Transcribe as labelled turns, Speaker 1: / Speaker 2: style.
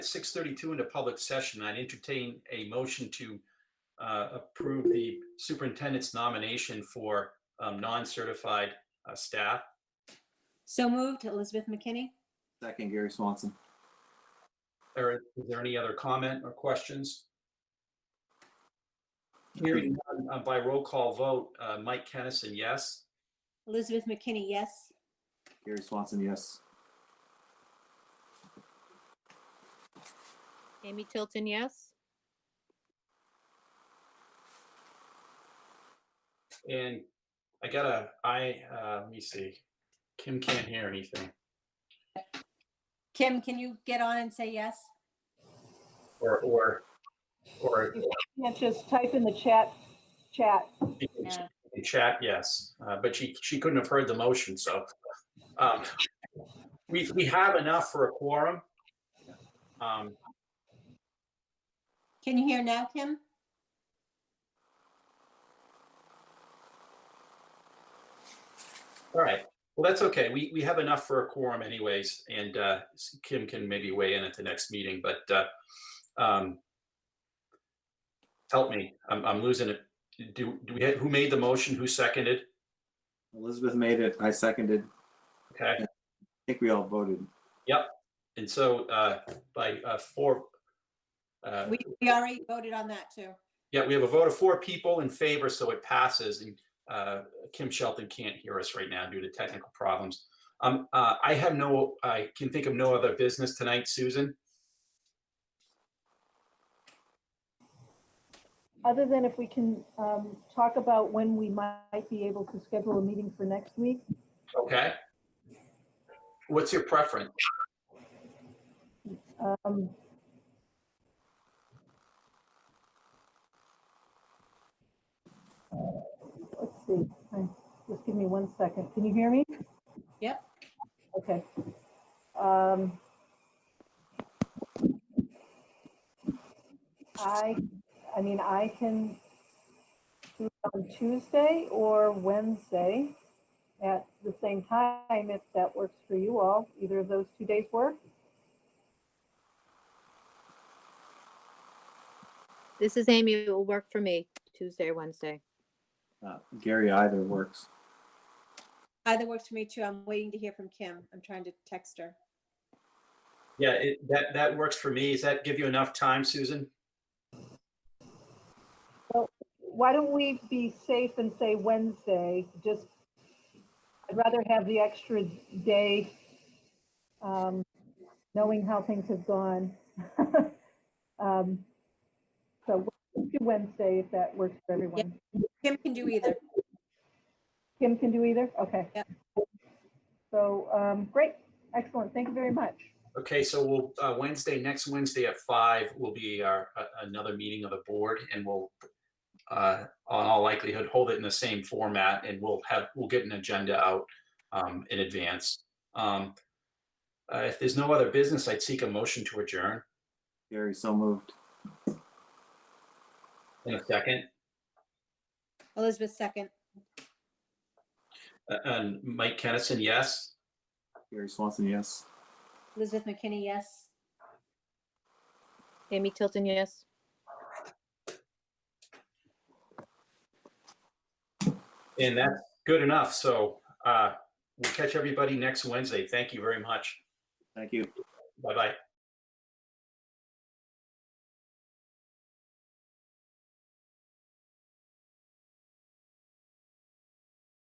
Speaker 1: six thirty-two into public session, I'd entertain a motion to uh, approve the superintendent's nomination for um, non-certified uh, staff.
Speaker 2: So moved, Elizabeth McKinney.
Speaker 3: Second, Gary Swanson.
Speaker 1: Or is there any other comment or questions? Hearing none, uh, by roll call vote, uh, Mike Kennison, yes.
Speaker 2: Elizabeth McKinney, yes.
Speaker 3: Gary Swanson, yes.
Speaker 4: Amy Tilton, yes.
Speaker 1: And I gotta, I, uh, let me see. Kim can't hear anything.
Speaker 2: Kim, can you get on and say yes?
Speaker 1: Or, or, or
Speaker 5: Yeah, just type in the chat, chat.
Speaker 1: she can
Speaker 2: No.
Speaker 1: in chat, yes, uh, but she, she couldn't have heard the motion, so. um, We, we have enough for a quorum. Um,
Speaker 2: Can you hear now, Kim?
Speaker 1: All right, well, that's okay. We, we have enough for a quorum anyways, and uh, Kim can maybe weigh in at the next meeting, but uh, um, help me, I'm, I'm losing it. Do, do we, who made the motion? Who seconded?
Speaker 3: Elizabeth made it. I seconded. I
Speaker 1: Okay.
Speaker 3: think we all voted.
Speaker 1: And so uh, by uh, four, uh,
Speaker 2: We we already voted on that too.
Speaker 1: yeah, we have a vote of four people in favor, so it passes. And uh, Kim Shelton can't hear us right now due to technical problems. Um, uh, I have no, I can think of no other business tonight, Susan.
Speaker 5: Other than if we can um, talk about when we might be able to schedule a meeting for next week.
Speaker 1: Okay. What's your preference?
Speaker 5: Um, Let's see, I- just give me one second. Can you hear me?
Speaker 2: Yep.
Speaker 5: Okay. Um, I, I mean, I can do it on Tuesday or Wednesday at the same time, if that works for you all. Either of those two days work?
Speaker 4: This is Amy. It will work for me Tuesday or Wednesday.
Speaker 3: Uh, Gary either works.
Speaker 2: Either works for me too. I'm waiting to hear from Kim. I'm trying to text her.
Speaker 1: Yeah, it, that, that works for me. Does that give you enough time, Susan?
Speaker 5: why don't we be safe and say Wednesday, just, I'd rather have the extra day, um, knowing how things have gone. Um, So we'll do Wednesday, if that works for everyone.
Speaker 2: Kim can do either.
Speaker 5: Kim can do either, okay.
Speaker 2: Yep.
Speaker 5: So, um, great, excellent, thank you very much.
Speaker 1: Okay, so we'll, uh, Wednesday, next Wednesday at five will be our, a- another meeting of the board and we'll, uh, on all likelihood, hold it in the same format and we'll have, we'll get an agenda out, um, in advance. Um, uh, if there's no other business, I'd seek a motion to adjourn
Speaker 3: Gary, so moved.
Speaker 1: in a second.
Speaker 2: Elizabeth, second.
Speaker 1: Uh, And Mike Kennison, yes?
Speaker 3: Gary Swanson, yes.
Speaker 2: Elizabeth McKinney, yes.
Speaker 4: Amy Tilton, yes.
Speaker 1: And that's good enough. So, uh, we'll catch everybody next Wednesday. Thank you very much.
Speaker 3: Thank you.
Speaker 1: Bye-bye.